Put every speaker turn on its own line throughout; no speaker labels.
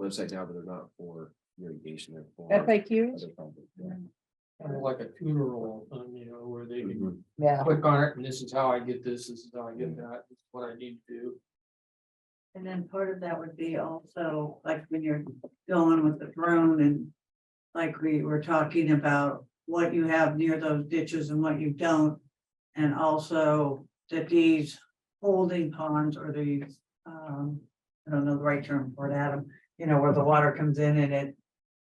website now, but they're not for irrigation. they're for other
FAQs?
problems, yeah.
Kind of like a tutorial, um, you know, where they can
Mhm.
Yeah.
click on it and this is how I get this, this is how I get that, this is what I need to do.
And then part of that would be also, like, when you're going with the drone and. Like we were talking about what you have near those ditches and what you don't. And also that these holding ponds or these, um, I don't know the right term for it, Adam, you know, where the water comes in and it.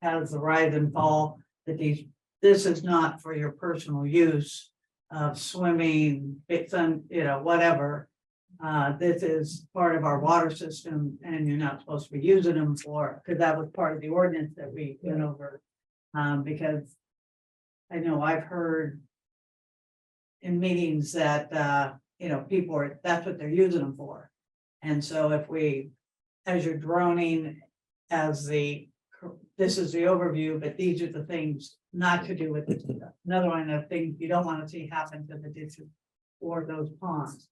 Has the rise and fall, that these, this is not for your personal use of swimming, it's on, you know, whatever. Uh, this is part of our water system and you're not supposed to be using them for, because that was part of the ordinance that we went over. Um, because I know I've heard in meetings that, uh, you know, people are, that's what they're using them for. And so if we, as you're droning, as the, this is the overview, but these are the things not to do with this. stuff. Another one of the things you don't want to see happen to the ditches or those ponds.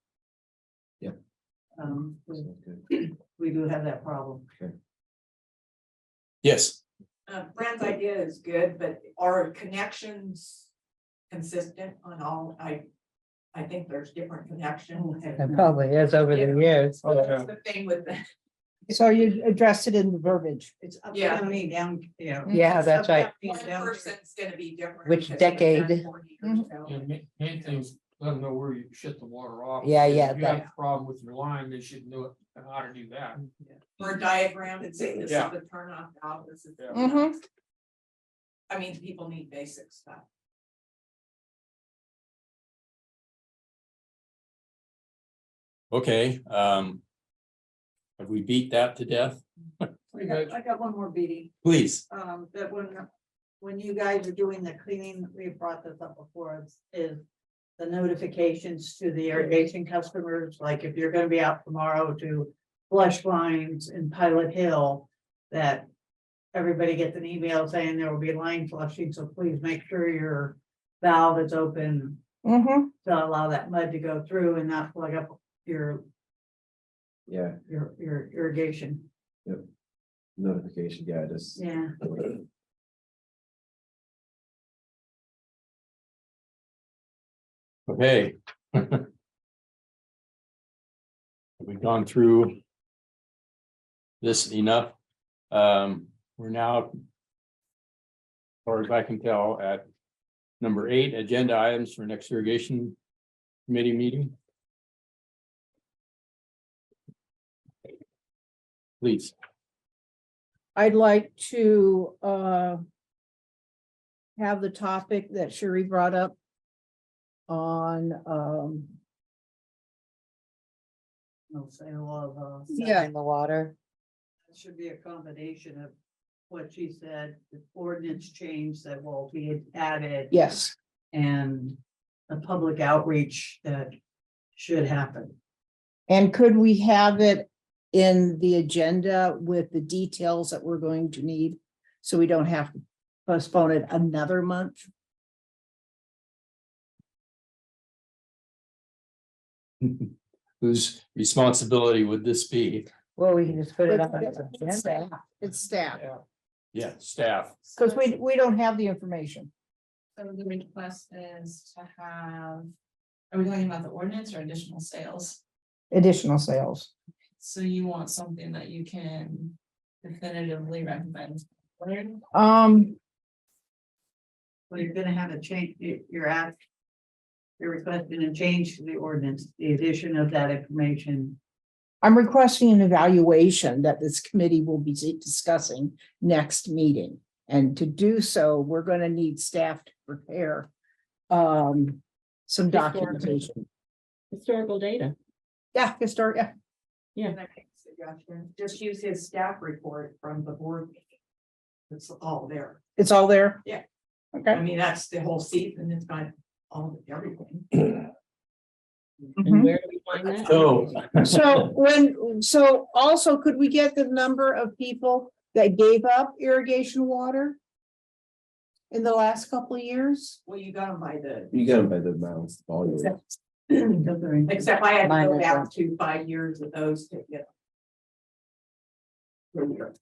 Um, we-
Sounds good.
we do have that problem.
Yes,
Uh, Brand's idea is good, but are connections consistent on all, I, I think there's different
Mm,
connections.
It
probably is over
the
years.
That's The thing with the
So you addressed it in the verbiage,
It's up
Yeah.
county down, you know.
Yeah,
it's
that's
up
right.
county
one
down here.
person's gonna be different.
Which
because they've done
decade?
40 years ago.
And main, main thing is let them know where you shut the water off.
Yeah,
If
yeah,
you have a Problem with your line, they should know it, how to do that.
Or a diagram and say this is
Yeah.
the turn off valve, this is.
Yeah.
Mm-hmm.
I mean, people need basic stuff.
okay, um. Have we beat that to death?
I got- I got one more beating,
Please,
um, that when, when you guys are doing the cleaning, we brought this up before, is- is the notifications to the irrigation customers, like if you're gonna be out tomorrow to flush lines in Pilot Hill, that everybody gets an email saying there will be line flushing, so please make sure your valve is open
Mm-hmm.
to allow that mud to go through and not plug up your,
Yeah,
your, your irrigation.
notification, yeah, just.
Yeah.
okay. We've gone through. This enough, um, we're now. as Far as I can tell, at number eight, agenda items for next irrigation committee meeting. Please.
I'd like to, uh, have the topic that Sherry brought up on, um,
No sale of, uh.
in the water.
It Should be a combination of what she said, the ordinance change that will be added.
Yes,
And the public outreach that should happen.
and could we have it in the agenda with the details that we're going to need? So we don't have to postpone it another month?
Whose responsibility would this be?
Well, we can just put
it on the
It's staff,
Yeah, staff.
because we, we don't have the information.
So the request is to have, are we talking about the ordinance or additional sales?
Additional sales.
So you want something that you can definitively recommend.
Um,
Well, you're gonna have a change, you- you're at. You're requesting a change to the ordinance, the addition of that information.
I'm requesting an evaluation that this committee will be discussing next meeting. And to do so, we're going to need staff to prepare um, some documentation.
historical data.
Yeah, historic, yeah.
Suggestion, just use his staff report from the board meeting. It's all there.
it's all there.
Yeah. I
Okay.
mean, that's the whole season. It's got all, everything.
And where do we find that?
So,
So when, so also could we get the number of people that gave up irrigation water? In the last couple of years?
Well, you got them by the,
You get them by the amount, volume.
except I had to
Mine
go
as
back to five years of those to get. them.